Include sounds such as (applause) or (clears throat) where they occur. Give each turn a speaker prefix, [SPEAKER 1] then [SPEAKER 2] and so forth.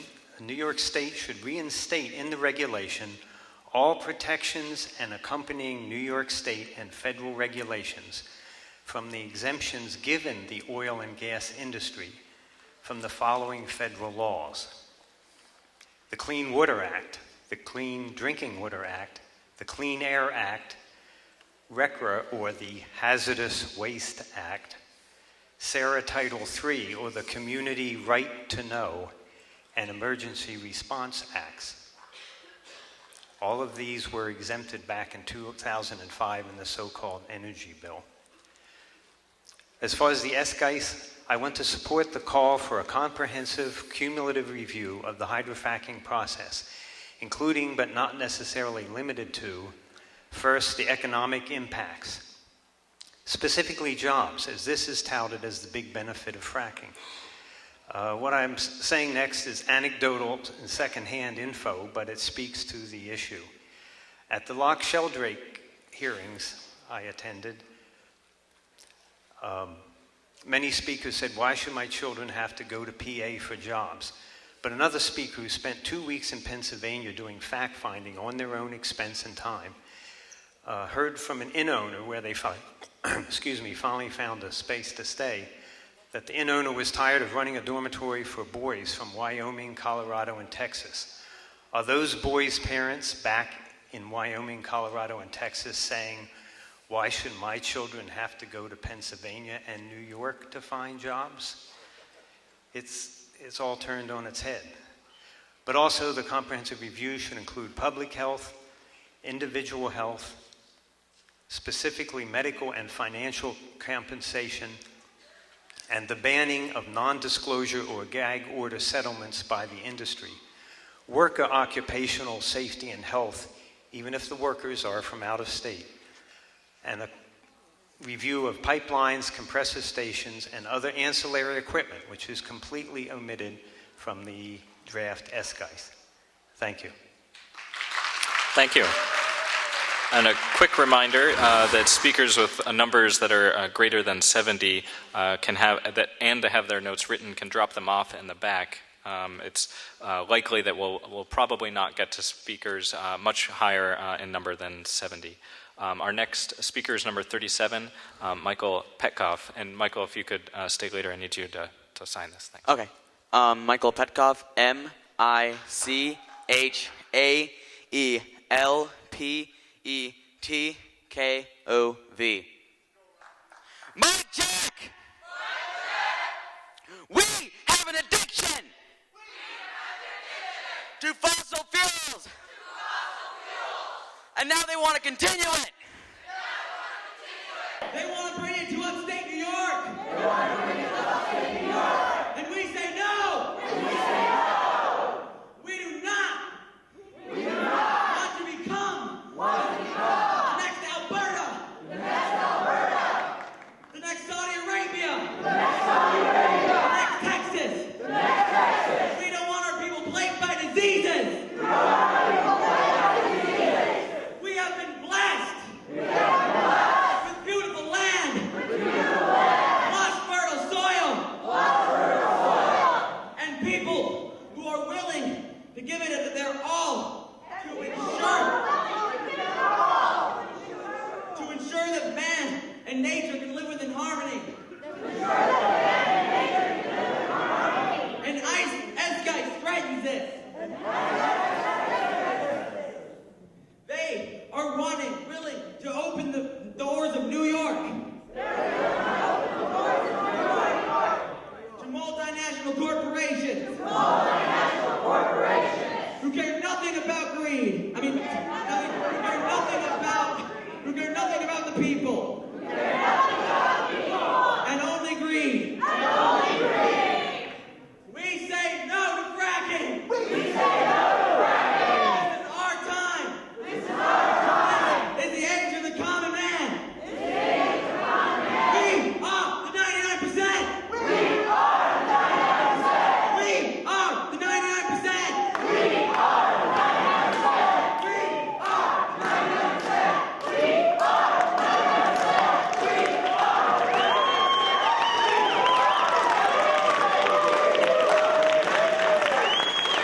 [SPEAKER 1] New York State should reinstate in the regulation all protections and accompanying New York State and federal regulations from the exemptions given the oil and gas industry from the following federal laws the Clean Water Act, the Clean Drinking Water Act, the Clean Air Act, RECRA or the Hazardous Waste Act, SARA Title III or the Community Right to Know, and Emergency Response Acts. All of these were exempted back in 2005 in the so called Energy Bill. As far as the SGICE, I want to support the call for a comprehensive, cumulative review of the hydrofracking process, including but not necessarily limited to first, the economic impacts, specifically jobs, as this is touted as the big benefit of fracking. Uh, what I'm s- saying next is anecdotal and secondhand info, but it speaks to the issue. At the Lock Sheldrake hearings I attended, um, many speakers said, Why should my children have to go to PA for jobs? But another speaker who spent two weeks in Pennsylvania doing fact finding on their own expense and time uh, heard from an inn owner where they fi- (clears throat) excuse me, finally found a space to stay that the inn owner was tired of running a dormitory for boys from Wyoming, Colorado, and Texas. Are those boys' parents back in Wyoming, Colorado, and Texas saying, why should my children have to go to Pennsylvania and New York to find jobs? It's, it's all turned on its head. But also, the comprehensive review should include public health, individual health, specifically medical and financial compensation, and the banning of non disclosure or gag order settlements by the industry, worker occupational safety and health, even if the workers are from out of state, and a review of pipelines, compressor stations, and other ancillary equipment, which is completely omitted from the draft SGIS. Thank you.
[SPEAKER 2] Thank you. And a quick reminder uh, that speakers with uh, numbers that are uh, greater than 70 uh, can have that, and to have their notes written, can drop them off in the back. Um, it's uh, likely that we'll, we'll probably not get to speakers uh, much higher uh, in number than 70. Um, our next speaker is number 37, um, Michael Petkoff. And Michael, if you could uh, stay later, I need you to, to sign this. Thanks.
[SPEAKER 3] Okay. Um, Michael Petkov, M I C H A E L P E T K O V. Mud Jack! We have an addiction! To fossil fuels! And now they want to continue it!
[SPEAKER 4] They want to bring it to upstate New York. They want to bring it to upstate New York. And we say no. we say no. We do not. We do not want to become. Want to become. The next Alberta. The next Alberta. The next Saudi Arabia. The next Saudi Arabia. The next Texas. The next Texas. We don't want our people plagued by diseases. We don't want our people plagued by diseases. We have been blessed with beautiful land. With beautiful land. Lush, fertile soil. And people who are willing to give it their all to ensure to ensure that man and nature can live within harmony. And ice, Eskai threatens this. They are wanting, willing to open the doors of New York. To multinational corporations. Who care nothing about greed.